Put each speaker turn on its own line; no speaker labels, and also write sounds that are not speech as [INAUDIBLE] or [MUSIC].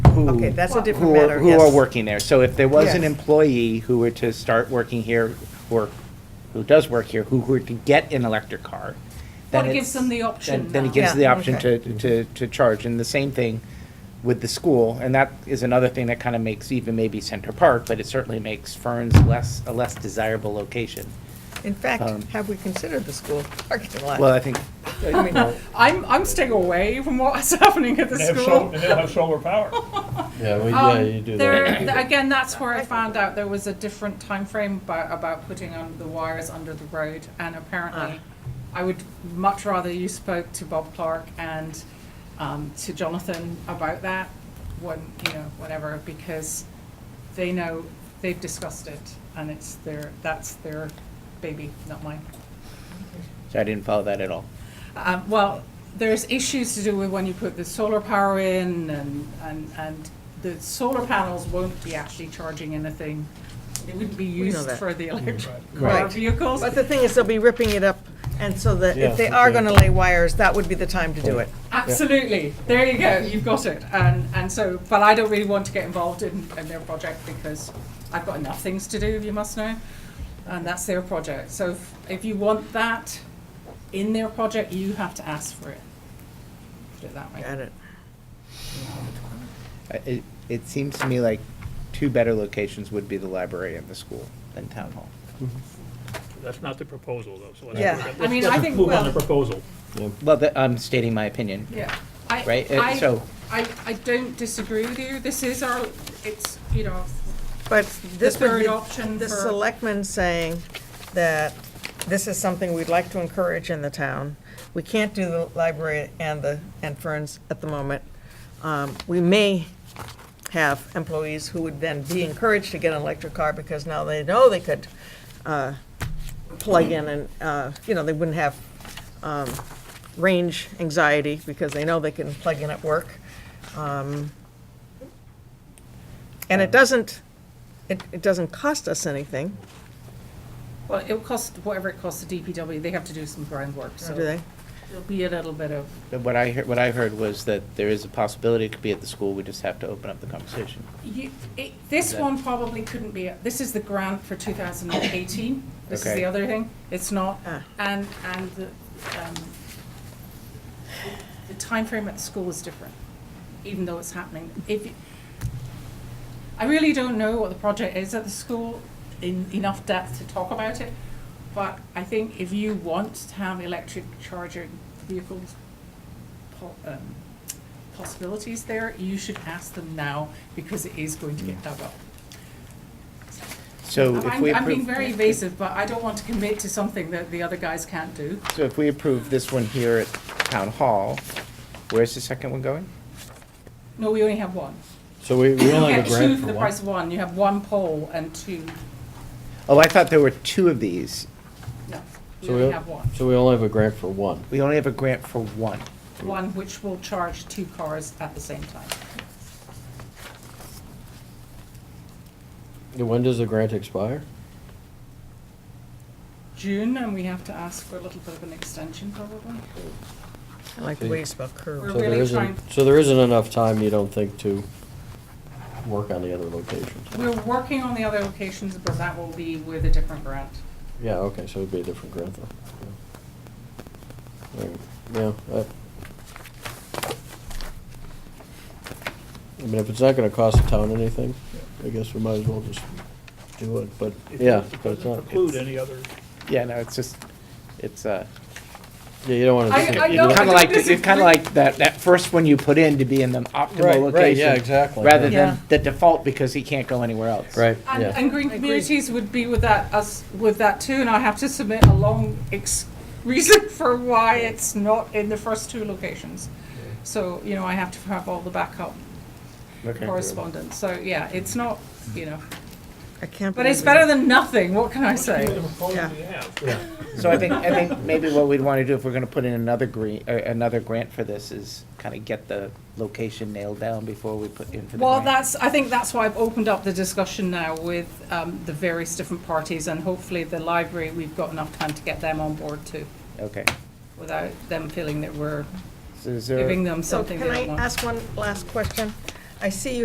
who.
Okay, that's a different
who are-
matter,
Who are
yes.
working there. So if there was an
Yes.
employee who were to start working here, or who does work here, who were to get an electric car.
Well,
then
it gives
it's-
them the
then-
option
Then it
now.
gives the
Yeah,
option to,
okay.
to, to charge. And the same thing with the school. And that is another thing that kind of makes even maybe Center Park, but it certainly makes Fern's less, a less desirable location.
In fact,
Um,
have we considered the school [LAUGHS] parking lot?
Well, I think,
[LAUGHS] I mean,
I'm, I'm staying away from what's [LAUGHS] happening at the
They have
school.
sol- and they'll have solar power.
Yeah, well,
Um,
yeah, you do
there- [COUGHS]
that.
th- Again, that's where I found out there was a different time frame about, about putting on the wires under the road, and apparently, I would much rather you spoke to Bob Clark and, um, to Jonathan about that, when, you know, whatever, because they know, they've discussed it, and it's their, that's their baby, not mine.
so I didn't follow that at all.
Um, well, there's issues to do with when you put the solar power in and, and, and the solar panels won't be actually charging anything. It wouldn't be
know
used
that.
for the electric car
Right.
vehicles.
But the thing is, they'll be ripping it up, and so that if
Yes,
they are
okay.
gonna lay wires, that would be the time to do it.
Absolutely. There you go. You've got it. And, and so, but I don't really want to get involved in, in their project because I've got enough things to do, you must know. And that's their project. So if, if you want that in their project, you have to ask for it. Put it that way.
Got it.
I- It, it seems to me like two better locations would be the library and the school than town hall.
[LAUGHS] That's not the proposal, though, so let's.
Yeah.
let's-
I mean,
let's
I think,
Move on
well-
the proposal.
Well, that- I'm stating my opinion.
Yeah, I,
Right, uh,
I,
so-
I, I don't disagree with you. This is our, it's, you know,
But this would
third
be
option
The
for-
selectmen saying that this is something we'd like to encourage in the town. We can't do the library and the, and Ferns at the moment. Um, We may have employees who would then be encouraged to get an electric car because now they know they could uh, plug in and, uh, you know, they wouldn't have um, range anxiety because they know they can plug in at work. Um, And it doesn't, it, it doesn't cost us anything,
well, it'll cost, whatever it costs the DPW, they have to do some groundwork, so.
Oh, do they?
There'll be a little bit of,
But What I, hear- what I heard was that there is a possibility it could be at the school, we just have to open up the conversation.
you, it, this one probably couldn't be, this is the grant for two thousand and eighteen. This is
Okay.
the other thing. It's not,
Ah.
and, and the, um, the timeframe at the school is different, even though it's happening. If, you- I really don't know what the project is at the school in enough depth to talk about it, but I think if you want to have electric charging vehicles po- um, possibilities there, you should ask them now because it is going to get dug up.
So if
I'm,
we
I'm being
approve,
very evasive, but I don't want to commit to something that the other guys can't do.
so if we approve this one here at town hall, where's the second one going?
No, we only have one.
So we, we
You
only
get
have a
two
grant
for
for
the
one.
price of one. You have one pole and two,
Oh, I thought there were two of these.
no, we
So we,
only
o-
have one.
so we only have a grant for one.
We only have a grant for one.
One which will charge two cars at the same time.
Yeah, When does the grant expire?
June, and we have to ask for a little bit of an extension probably.
I like the way you spell curve.
We're
So there
really
isn't-
trying-
So there isn't enough time, you don't think, to work on the other locations?
We're working on the other locations, but that will be with a different grant.
Yeah, okay, so it'd be a different grant though. Yeah, Yeah, I. I mean, if it's not gonna cost the town anything, I guess we might as well just do it, but,
It
yeah, but it's
Doesn't
not.
preclude any other,
Yeah, no, it's just, it's, uh,
Yeah, you don't wanna.
I-
just-
I
you
know-
don't-
kind
don't
of like,
disagree.
it's kind of like that, that first one you put in to be in the
Right,
optimal location.
right, yeah, exactly,
Rather
yeah.
Yeah.
than the default because he can't go anywhere else.
Right,
And,
yeah.
and green
agree.
communities would be with that, us, with that too, and I have to submit a long ex- reason [LAUGHS] for why it's not in the first two locations. So, you know, I have to have all the backup correspondence, so, yeah, it's not, you know,
I can't
but it's
believe
better than nothing, what can I say?
minimum pole
Yeah.
we have.
So I think, I think maybe what we'd want to do if we're going to put in another green, uh, another grant for this is kind of get the location nailed down before we put in for the grant.
Well, that's, I think that's why I've opened up the discussion now with, um, the various different parties, and hopefully the library, we've got enough time to get them on board too,
Okay.
without them feeling that we're
So is there?
giving them
So
something they
can
don't
I
want.
ask one last question? I see you